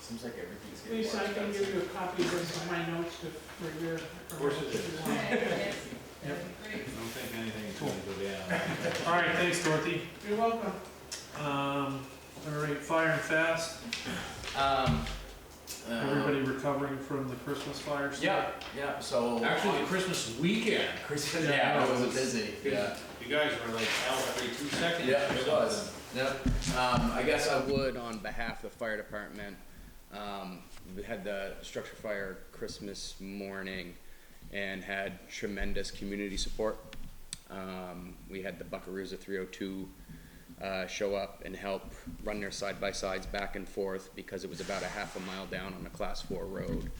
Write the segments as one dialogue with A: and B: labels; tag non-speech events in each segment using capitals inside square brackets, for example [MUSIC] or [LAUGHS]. A: Seems like everything's getting
B: Lisa,
A: more
B: I can give
A: expensive.
B: you a copy of this in my notes to, for your. Of
C: course it is. I
D: Yep.
C: don't think anything's gonna go down.
E: All right, thanks Dorothy.
B: You're welcome.
E: Um, all right, fire and fast,
A: Um, uh,
E: everybody recovering from the Christmas fire. stuff?
A: Yeah, yeah, so.
C: Actually, the Christmas weekend,
A: Christmas, yeah, it
C: Yeah.
A: was busy, yeah.
C: you guys were like out every two seconds.
A: Yeah,
C: or
A: it was.
C: something.
A: Yep. Um, I guess I would, on behalf of the fire department, um, we had the structure fire Christmas morning and had tremendous community support. Um, we had the Buckaroos of 302 uh, show up and help run their side by sides back and forth because it was about a half a mile down on a class four road.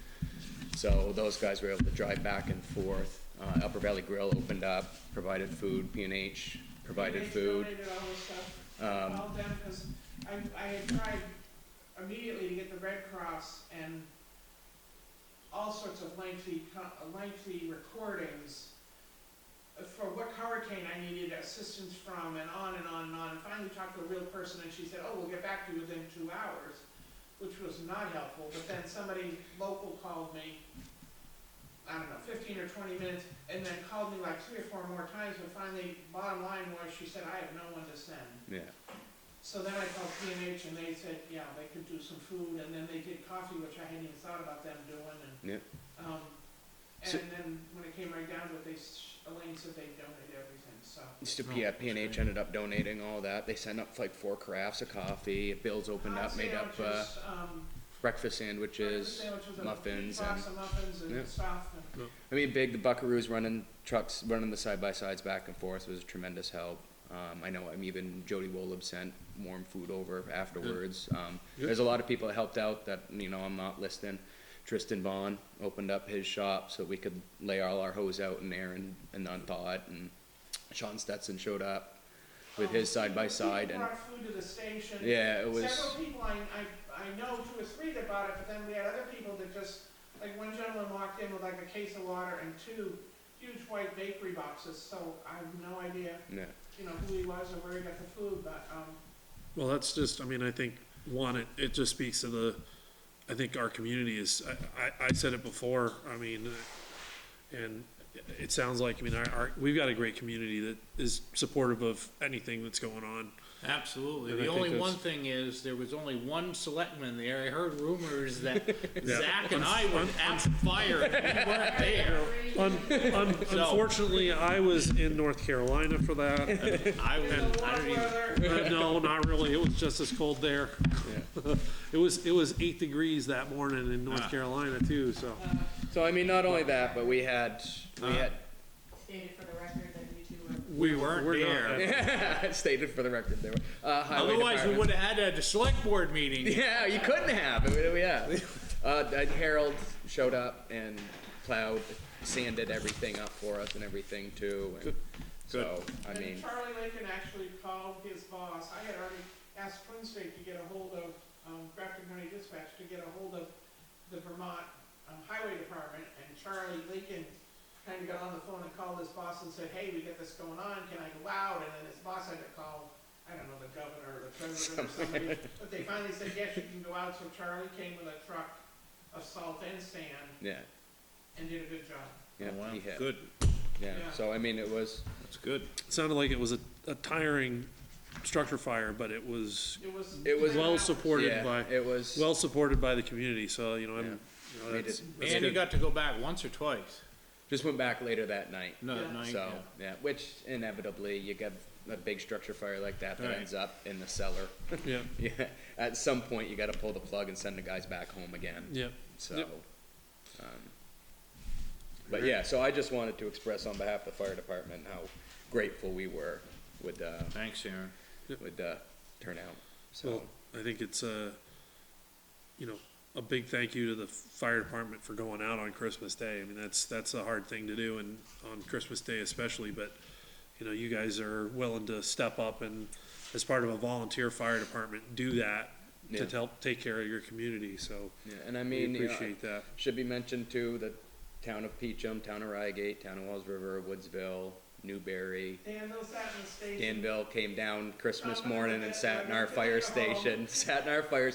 A: So those guys were able to drive back and forth. Uh, Upper Valley Grill opened up, provided food, P and H provided
B: They
A: food.
B: donated all this stuff.
A: Um,
B: All them, because I, I had tried immediately to get the Red Cross and all sorts of lengthy, co- uh, lengthy recordings for what hurricane I needed assistance from and on and on and on. And finally talked to a real person and she said, oh, we'll get back to you within two hours, which was not helpful. But then somebody local called me I don't know, fifteen or twenty minutes, and then called me like three or four more times, and finally, bottom line was, she said, I have no one to send.
A: Yeah.
B: So then I called P and H, and they said, yeah, they could do some food, and then they did coffee, which I hadn't even thought about them doing, and, um,
A: So-
B: and then when it came right down to it, they, s- Elaine said they donated everything, so.
A: Just to, yeah, P and H ended up donating all that. They sent up like four carafes of coffee. Bill's opened up,
B: Hot
A: made up uh,
B: sandwiches, um,
A: breakfast sandwiches,
B: sandwiches and
A: muffins,
B: Pizza
A: and
B: and muffins
A: Yeah.
B: and stuff, and
A: I mean, big. The Buckaroos running trucks, running the side by sides back and forth was tremendous help. Um, I know. I'm even Jody Wolub sent warm food over afterwards. Um, There's a lot of people that helped out that you know I'm not listing. Tristan Vaughn opened up his shop so we could lay all our hose out in there and, and unthaw it. And Sean Stetson showed up with his side by side
B: People
A: and.
B: brought food to the station.
A: Yeah, it was-
B: Several people, I, I, I know two or three that bought it, but then we had other people that just, like one gentleman walked in with like a case of water and two huge white bakery boxes, so I have no idea,
A: Yeah.
B: you know, who he was or where he got the food, but, um,
D: Well, that's just, I mean, I think, one, it, it just speaks to the, I think our community is, I, I, I said it before, I mean, uh, and it sounds like, I mean, our, our, we've got a great community that is supportive of anything that's going on.
C: Absolutely.
D: And I
C: The
D: think
C: only
D: that's-
C: one thing is, there was only one selectman there. I heard rumors that Zach and I were
D: Un-
C: at the fire and we weren't there.
D: Un, un, unfortunately, I was in North Carolina for that.
C: I was,
B: the
C: I
B: warm
C: don't even,
B: weather,
D: Uh, No, not really, it was just as cold there. [LAUGHS] It was, it was eight degrees that morning in North
C: Ah.
D: Carolina too, so.
A: So I mean, not only that, but we had we
F: stated for the record that you two were
C: we weren't
D: We're not
C: there.
A: had [LAUGHS] stated for the record there. were- Uh, highway
C: Uh. Otherwise, we
A: department.
C: would have had a select board meeting.
A: [LAUGHS] Yeah, you couldn't have. I mean, yeah. Uh, that Harold showed up and plowed, sanded everything up for us and everything too. And So I
B: and
A: mean,
B: Charlie Lincoln actually called his boss, I had already asked Twin State to get a hold of, um, Grafton County Dispatch to get a hold of the Vermont um, Highway Department, and Charlie Lincoln kind of got on the phone and called his boss and said, hey, we got this going on, can I go out? And then his boss had to call, I don't know, the governor or the president or somebody, [LAUGHS] but they finally said, yes, you can go out, so Charlie came with a truck of salt and sand
A: yeah,
B: and did a good job.
A: yeah,
C: Oh, Wow,
A: he hit.
C: Good,
A: Yeah.
B: Yeah.
A: So I mean, it was
C: that's good.
D: sounded like it was a, a tiring structure fire, but it was
B: It was.
A: It was-
D: well supported
A: yeah,
D: by
A: it was
D: well supported by the community. So you know, I'm, you know,
A: They
D: that's,
A: did-
D: that's
C: And you
D: good.
C: got to go back once or twice.
A: just went back later that night.
C: No,
B: Yeah.
C: night, yeah.
A: So yeah, which inevitably you get a big structure fire like that that
C: Right.
A: ends up in the cellar. [LAUGHS]
D: yeah,
A: yeah, at some point you got to pull the plug and send the guys back home again.
D: yeah.
A: So,
D: Yep.
A: um, but yeah, so I just wanted to express on behalf of the fire department how grateful we were with the,
C: Thanks, Aaron.
A: with the turnout. So,
D: So I think it's a, you know, a big thank you to the fire department for going out on Christmas Day. I mean, that's that's a hard thing to do, and on Christmas Day especially. But you know, you guys are willing to step up and, as part of a volunteer fire department, do that
A: yeah,
D: to help take care of your community. So
A: yeah, and I
D: we
A: mean, you know,
D: appreciate that.
A: should be mentioned too, the town of Peachum, town of Rygate, town of Wells River, Woodsville, Newberry,
B: Dan, those sat in the station.
A: Danville came down Christmas
B: Oh, I remember
A: morning and
B: that.
A: sat in our fire
B: Yeah.
A: station, [LAUGHS] sat in our fire